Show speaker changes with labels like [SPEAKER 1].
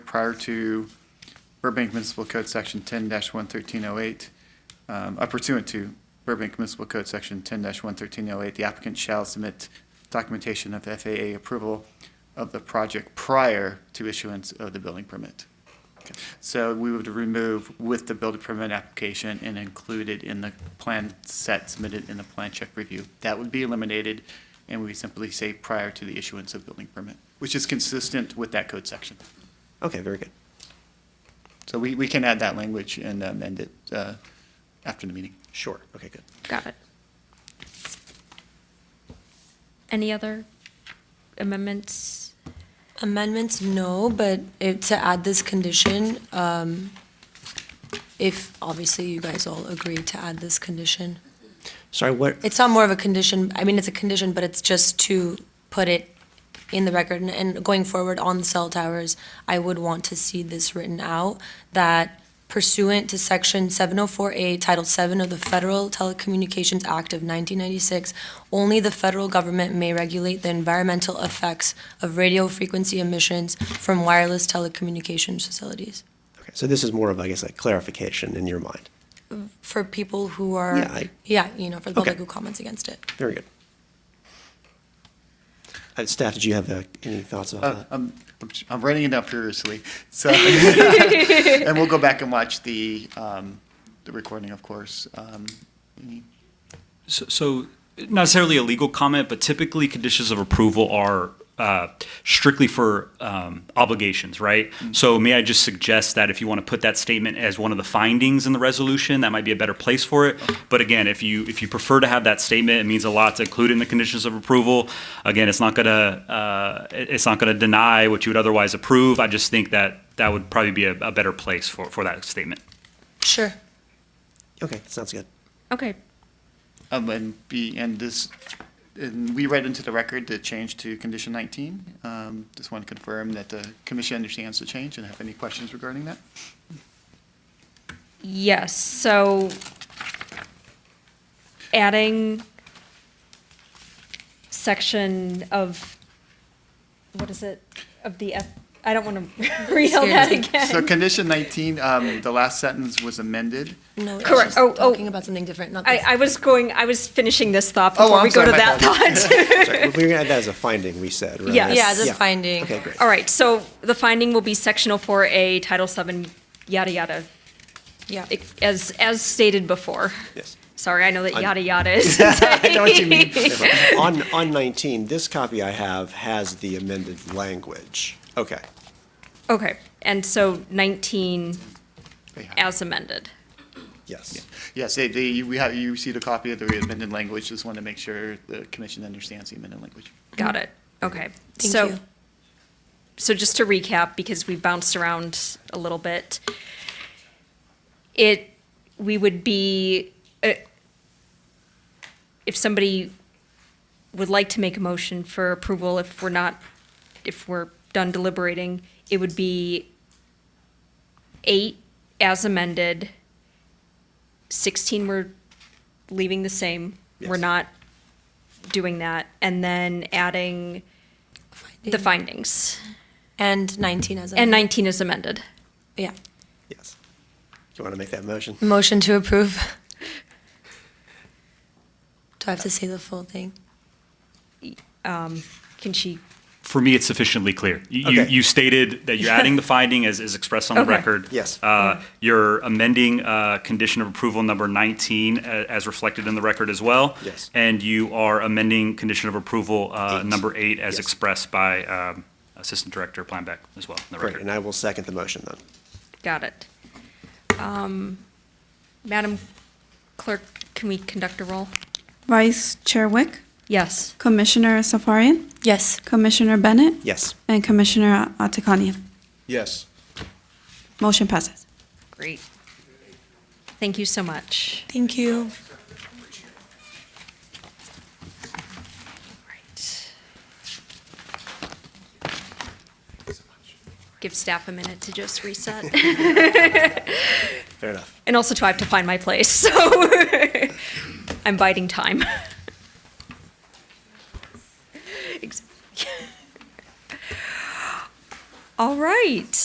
[SPEAKER 1] prior to Burbank Municipal Code Section ten one thirteen oh eight, um, uh, pursuant to Burbank Municipal Code Section ten one thirteen oh eight, the applicant shall submit documentation of FAA approval of the project prior to issuance of the building permit. Okay. So we would remove with the building permit application and include it in the plan set submitted in the plan check review. That would be eliminated, and we simply say prior to the issuance of building permit, which is consistent with that code section.
[SPEAKER 2] Okay, very good.
[SPEAKER 1] So we, we can add that language and amend it uh, after the meeting.
[SPEAKER 2] Sure. Okay, good.
[SPEAKER 3] Got it. Any other amendments?
[SPEAKER 4] Amendments, no, but if, to add this condition, um, if obviously you guys all agree to add this condition.
[SPEAKER 2] Sorry, what,
[SPEAKER 4] It's not more of a condition, I mean, it's a condition, but it's just to put it in the record. And- And going forward on the cell towers, I would want to see this written out, that pursuant to Section 704A, Title VII of the Federal Telecommunications Act of 1996, only the federal government may regulate the environmental effects of radio frequency emissions from wireless telecommunications facilities.
[SPEAKER 2] okay, so this is more of, I guess, a clarification in your mind.
[SPEAKER 4] For people who are,
[SPEAKER 2] Yeah, I-
[SPEAKER 4] yeah, you know, for the public
[SPEAKER 2] Okay.
[SPEAKER 4] who comments against it.
[SPEAKER 2] Very good. Uh, Staff, did you have uh, any thoughts about
[SPEAKER 1] Uh,
[SPEAKER 2] that?
[SPEAKER 1] I'm, I'm j- I'm writing it up furiously, so, and we'll go back and watch the, um, the recording, of course. Um,
[SPEAKER 5] So, so not necessarily a legal comment, but typically conditions of approval are uh, strictly for um, obligations, right? So may I just suggest that if you want to put that statement as one of the findings in the resolution, that might be a better place for it. But again, if you if you prefer to have that statement, it means a lot to include in the conditions of approval. Again, it's not gonna uh, it- it's not gonna deny what you would otherwise approve. I just think that that would probably be a, a better place for, for that statement.
[SPEAKER 4] Sure.
[SPEAKER 2] Okay, sounds good.
[SPEAKER 3] Okay,
[SPEAKER 1] Um, and be, and this, and we read into the record the change to condition nineteen. Um, just want to confirm that the commission understands the change and have any questions regarding that?
[SPEAKER 3] yes, so adding section of, what is it, of the F, I don't want to read all that
[SPEAKER 1] So
[SPEAKER 3] again.
[SPEAKER 1] condition nineteen, um, the last sentence was amended.
[SPEAKER 4] No, it's
[SPEAKER 3] Correct.
[SPEAKER 4] just
[SPEAKER 3] Oh, oh.
[SPEAKER 4] talking about something different, not
[SPEAKER 3] I,
[SPEAKER 4] this.
[SPEAKER 3] I was going, I was finishing this thought
[SPEAKER 1] Oh,
[SPEAKER 3] before
[SPEAKER 1] I'm
[SPEAKER 3] we go
[SPEAKER 1] sorry,
[SPEAKER 3] to
[SPEAKER 1] my
[SPEAKER 3] that
[SPEAKER 1] apologies.
[SPEAKER 3] thought.
[SPEAKER 2] Sorry, we're gonna add that as a finding, we said, right?
[SPEAKER 3] Yes.
[SPEAKER 4] Yeah, as
[SPEAKER 3] Yeah.
[SPEAKER 4] a finding.
[SPEAKER 2] Okay, great.
[SPEAKER 3] All right, so the finding will be section 04A, Title 7, yada, yada,
[SPEAKER 4] Yeah.
[SPEAKER 3] as, as stated before.
[SPEAKER 2] Yes.
[SPEAKER 3] Sorry, I know that
[SPEAKER 2] I'm-
[SPEAKER 3] yada yada is.
[SPEAKER 1] I know what you mean.
[SPEAKER 2] Never mind. On, on 19, this copy I have has the amended language. Okay,
[SPEAKER 3] Okay, and so 19 as amended.
[SPEAKER 2] yes.
[SPEAKER 1] Yes, they, they, we have, you received a copy of the amended language, just want to make sure the commission understands the amended language.
[SPEAKER 3] Got it. Okay.
[SPEAKER 4] Mm-hmm. Thank
[SPEAKER 3] So,
[SPEAKER 4] you.
[SPEAKER 3] so just to recap, because we bounced around a little bit, it, we would be, uh, if somebody would like to make a motion for approval, if we're not, if we're done deliberating, it would be eight as amended, 16 we're leaving the same. We're
[SPEAKER 2] Yes.
[SPEAKER 3] not doing that, and then adding the findings.
[SPEAKER 4] And 19 as a.
[SPEAKER 3] And 19 is amended.
[SPEAKER 4] Yeah.
[SPEAKER 2] Yes. Do you want to make that motion?
[SPEAKER 4] Motion to approve. Do I have to say the full thing?
[SPEAKER 3] Can she?
[SPEAKER 5] For me, it's sufficiently clear. You, you-
[SPEAKER 2] Okay.
[SPEAKER 5] you stated that you're adding the finding as is expressed on the
[SPEAKER 3] Okay.
[SPEAKER 5] record.
[SPEAKER 2] Yes.
[SPEAKER 5] Uh, You're amending uh, condition of approval number 19 a- as reflected in the record as well.
[SPEAKER 2] Yes.
[SPEAKER 5] And you are amending condition of approval uh,
[SPEAKER 2] Eight.
[SPEAKER 5] number eight as
[SPEAKER 2] Yes.
[SPEAKER 5] expressed by um, Assistant Director Planbeck as well in the
[SPEAKER 2] Great, and
[SPEAKER 5] record.
[SPEAKER 2] I will second the motion then.
[SPEAKER 3] Got it. Um, Madam Clerk, can we conduct a roll?
[SPEAKER 6] Vice Chair Wick,
[SPEAKER 3] Yes.
[SPEAKER 6] Commissioner Safarian,
[SPEAKER 4] Yes.
[SPEAKER 6] Commissioner Bennett,
[SPEAKER 2] Yes.
[SPEAKER 6] and Commissioner Atakanian.
[SPEAKER 7] Yes.
[SPEAKER 6] Motion passes.
[SPEAKER 3] Great. Thank you so much.
[SPEAKER 4] Thank you.
[SPEAKER 3] Right. Give staff a minute to just reset.
[SPEAKER 2] Fair enough.
[SPEAKER 3] And also, too, I have to find my place, so I'm biding time. Ex- All right.